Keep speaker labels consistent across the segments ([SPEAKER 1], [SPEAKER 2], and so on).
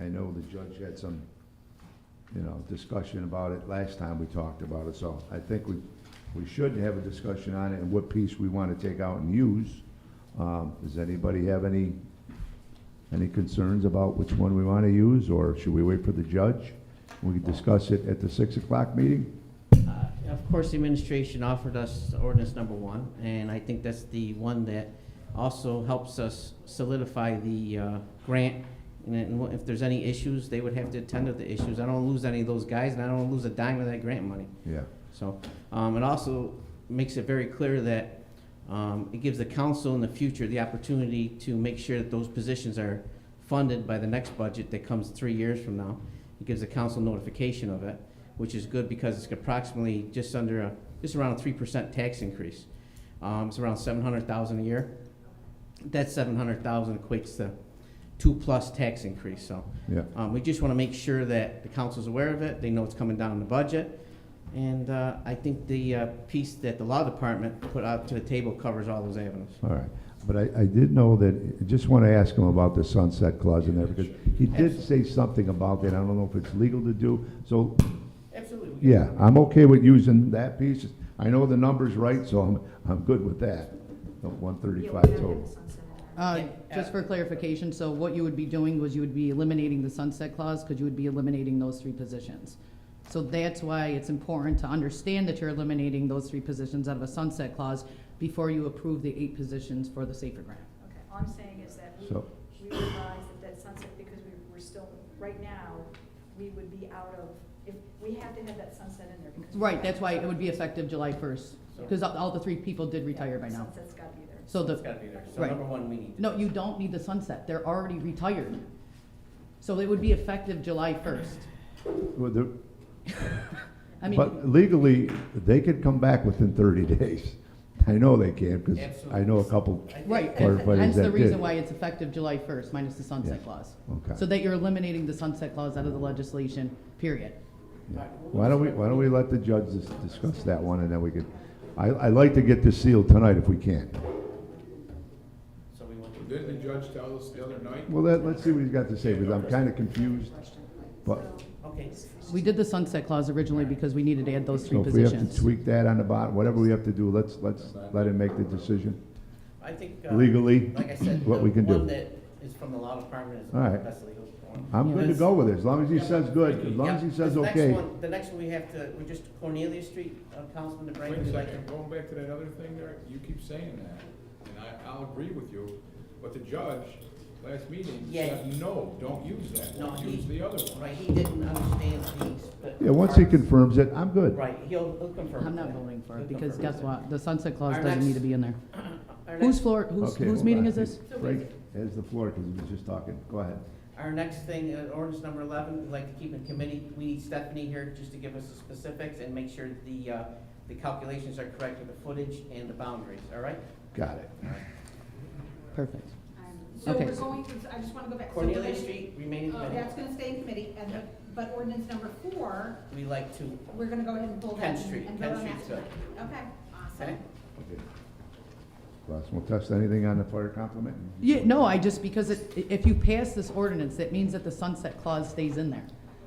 [SPEAKER 1] I know the judge had some, you know, discussion about it last time we talked about it, so I think we, we should have a discussion on it and what piece we want to take out and use. Um, Does anybody have any, any concerns about which one we want to use, or should we wait for the judge? We can discuss it at the six o'clock meeting?
[SPEAKER 2] Uh, Of course, the administration offered us ordinance number one, and I think that's the one that also helps us solidify the uh, grant. And then if there's any issues, they would have to attend to the issues. I don't lose any of those guys, and I don't lose a dime of that grant money.
[SPEAKER 1] Yeah,
[SPEAKER 2] So, um, it also makes it very clear that, um, it gives the council in the future the opportunity to make sure that those positions are funded by the next budget that comes three years from now. It gives the council notification of it, which is good because it's approximately just under a, just around a three percent tax increase. Um, it's around seven hundred thousand a year. That seven hundred thousand equates to two-plus tax increase, so.
[SPEAKER 1] yeah.
[SPEAKER 2] Um, we just want to make sure that the council's aware of it, they know it's coming down in the budget. And, uh, I think the, uh, piece that the law department put out to the table covers all those avenues.
[SPEAKER 1] All right, but I, I did know that, I just want to ask him about the sunset clause and there, because he did say something about that, I don't know if it's legal to do, so,
[SPEAKER 2] Absolutely.
[SPEAKER 1] yeah, I'm okay with using that piece, I know the number's right, so I'm, I'm good with that, Oh, one thirty-five total.
[SPEAKER 3] Uh,
[SPEAKER 2] Yeah,
[SPEAKER 3] Just
[SPEAKER 2] uh,
[SPEAKER 3] for clarification, so what you would be doing was you would be eliminating the sunset clause because you would be eliminating those three positions. So that's why it's important to understand that you're eliminating those three positions out of a sunset clause before you approve the eight positions for the safer grant.
[SPEAKER 4] Okay, all I'm saying is that we,
[SPEAKER 1] So-
[SPEAKER 4] we realize that that sunset, because we, we're still, right now, we would be out of, if, we have to have that sunset in there because. we-
[SPEAKER 3] Right, that's why it would be effective July 1st, because all all the three people did retire by now.
[SPEAKER 4] Sunset's gotta be there.
[SPEAKER 3] So
[SPEAKER 2] It's
[SPEAKER 3] the,
[SPEAKER 2] gotta be there, so
[SPEAKER 3] Right.
[SPEAKER 2] number one, we need. to-
[SPEAKER 3] no, you don't need the sunset, they're already retired. So it would be effective July 1st.
[SPEAKER 1] Well, the-
[SPEAKER 3] I mean.
[SPEAKER 1] But legally, they could come back within thirty days, I know they can, because I know a couple,
[SPEAKER 2] I think-
[SPEAKER 3] Right,
[SPEAKER 1] Or
[SPEAKER 3] and
[SPEAKER 1] what is
[SPEAKER 3] hence the
[SPEAKER 1] that
[SPEAKER 3] reason
[SPEAKER 1] did?
[SPEAKER 3] why it's effective July 1st, minus the sunset
[SPEAKER 1] Yeah.
[SPEAKER 3] clause. So
[SPEAKER 1] okay.
[SPEAKER 3] that you're eliminating the sunset clause out of the legislation, period.
[SPEAKER 1] Why don't we, why don't we let the judge dis- discuss that one, and then we could, I, I'd like to get this sealed tonight if we can.
[SPEAKER 2] So we want to.
[SPEAKER 5] Didn't the judge tell us the other night?
[SPEAKER 1] Well, let, let's see what he's got to say, because I'm kind of confused, but,
[SPEAKER 2] Okay,
[SPEAKER 3] We did the sunset clause originally because we needed to add those three
[SPEAKER 1] so if we have to
[SPEAKER 3] positions.
[SPEAKER 1] tweak that on the bottom, whatever we have to do, let's, let's let him make the decision
[SPEAKER 2] I think. uh,
[SPEAKER 1] legally.
[SPEAKER 2] Like I said, the
[SPEAKER 1] what we can do.
[SPEAKER 2] one that is from the law department is
[SPEAKER 1] All right.
[SPEAKER 2] the best legal form.
[SPEAKER 1] I'm good to go with it, as long as he says good, as long as he
[SPEAKER 2] Yeah,
[SPEAKER 1] says
[SPEAKER 2] the next
[SPEAKER 1] okay.
[SPEAKER 2] one- The next one we have to, we're just Cornelius Street, uh, Councilman DeBrey.
[SPEAKER 5] Wait
[SPEAKER 2] would
[SPEAKER 5] a
[SPEAKER 2] you like
[SPEAKER 5] second,
[SPEAKER 2] to-
[SPEAKER 5] going back to that other thing there, you keep saying that, and I, I'll agree with you, but the judge, last meeting,
[SPEAKER 2] Yeah.
[SPEAKER 5] said, no, don't use that
[SPEAKER 2] No,
[SPEAKER 5] one,
[SPEAKER 2] he-
[SPEAKER 5] use the other one.
[SPEAKER 2] Right, he didn't understand these. but-
[SPEAKER 1] Yeah, once he confirms it, I'm good.
[SPEAKER 2] Right, he'll, he'll confirm.
[SPEAKER 3] I'm not voting for it
[SPEAKER 2] He'll
[SPEAKER 3] because
[SPEAKER 2] confirm
[SPEAKER 3] guess
[SPEAKER 2] it.
[SPEAKER 3] what? The sunset clause
[SPEAKER 2] Our
[SPEAKER 3] doesn't
[SPEAKER 2] next-
[SPEAKER 3] need to be in there.
[SPEAKER 2] Our
[SPEAKER 3] Whose
[SPEAKER 2] next,
[SPEAKER 3] floor, whose,
[SPEAKER 1] Okay,
[SPEAKER 3] whose
[SPEAKER 1] hold
[SPEAKER 3] meeting
[SPEAKER 1] on.
[SPEAKER 3] is this?
[SPEAKER 1] Frank has the floor, because he was just talking, go ahead.
[SPEAKER 2] our next thing, uh, ordinance number eleven, we'd like to keep in committee, we need Stephanie here just to give us the specifics and make sure the, uh, the calculations are correct with the footage and the boundaries, all right?
[SPEAKER 1] Got it.
[SPEAKER 3] Perfect.
[SPEAKER 6] So
[SPEAKER 3] Okay.
[SPEAKER 6] we're going to, I just want to go back. So we're gonna-
[SPEAKER 2] Cornelius Street, remaining
[SPEAKER 6] uh,
[SPEAKER 2] committee,
[SPEAKER 6] That's going to stay in committee, and, the- but ordinance number four,
[SPEAKER 2] we like to,
[SPEAKER 6] we're going to go ahead and pull that.
[SPEAKER 2] Kent
[SPEAKER 6] and-
[SPEAKER 2] Street,
[SPEAKER 6] and
[SPEAKER 2] Kent
[SPEAKER 6] vote on
[SPEAKER 2] Street's
[SPEAKER 6] that. Okay,
[SPEAKER 2] okay?
[SPEAKER 6] awesome.
[SPEAKER 1] Okay. Russ, won't touch anything on the fire compliment?
[SPEAKER 3] Yeah, no, I just, because it, i- if you pass this ordinance, that means that the sunset clause stays in there.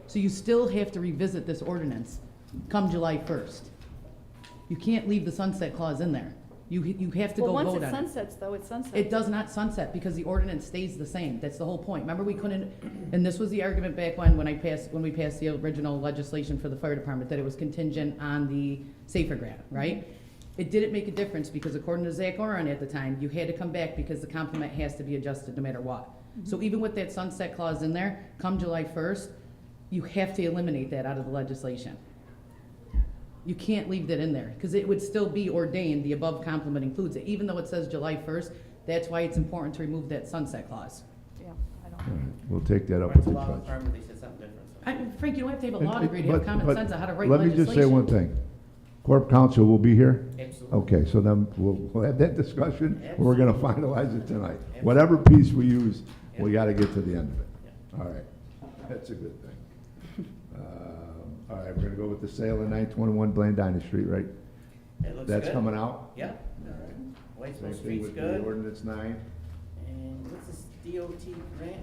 [SPEAKER 3] So you still have to revisit this ordinance come July 1st. You can't leave the sunset clause in there. You, you have to go
[SPEAKER 7] Well,
[SPEAKER 3] vote on it.
[SPEAKER 7] once it sunsets, though, it sunsets.
[SPEAKER 3] It does not sunset because the ordinance stays the same. That's the whole point. Remember, we couldn't, and this was the argument back when, when I passed, when we passed the original legislation for the fire department, that it was contingent on the safer grant, right? It didn't make a difference because according to Zach Oren at the time, you had to come back because the complement has to be adjusted no matter what. So even with that sunset clause in there, come July first, you have to eliminate that out of the legislation. You can't leave that in there, because it would still be ordained, the above complement includes it, even though it says July first, that's why it's important to remove that sunset clause.
[SPEAKER 7] Yeah, I
[SPEAKER 1] All
[SPEAKER 7] don't.
[SPEAKER 1] right, We'll take that up
[SPEAKER 2] Or it's
[SPEAKER 1] with
[SPEAKER 2] a
[SPEAKER 1] the
[SPEAKER 2] law
[SPEAKER 1] judge.
[SPEAKER 2] department, they said something different. so.
[SPEAKER 3] I, Frank, you don't have to have a
[SPEAKER 1] It-
[SPEAKER 3] law
[SPEAKER 1] it-
[SPEAKER 3] degree to have
[SPEAKER 1] but-
[SPEAKER 3] common
[SPEAKER 1] but
[SPEAKER 3] sense on how to write
[SPEAKER 1] Let me
[SPEAKER 3] legislation.
[SPEAKER 1] just say one thing. Corp counsel will be here?
[SPEAKER 2] Absolutely.
[SPEAKER 1] Okay, so then we'll, we'll have that discussion, and we're gonna finalize it tonight.
[SPEAKER 2] Absolutely.
[SPEAKER 1] Whatever piece we use, we
[SPEAKER 2] Yeah.
[SPEAKER 1] gotta get to the end of it.
[SPEAKER 2] Yeah.
[SPEAKER 1] All right, that's a good thing. Um, All right, we're gonna go with the sale of nine twenty-one Blandina Street, right?
[SPEAKER 2] It looks
[SPEAKER 1] That's
[SPEAKER 2] good.
[SPEAKER 1] coming out?
[SPEAKER 2] Yeah,
[SPEAKER 1] All right. Same
[SPEAKER 2] Whitesville
[SPEAKER 1] thing
[SPEAKER 2] Street's
[SPEAKER 1] with the
[SPEAKER 2] good,
[SPEAKER 1] ordinance nine.
[SPEAKER 2] and what's this DOT grant?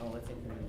[SPEAKER 2] Oh, it's incremental.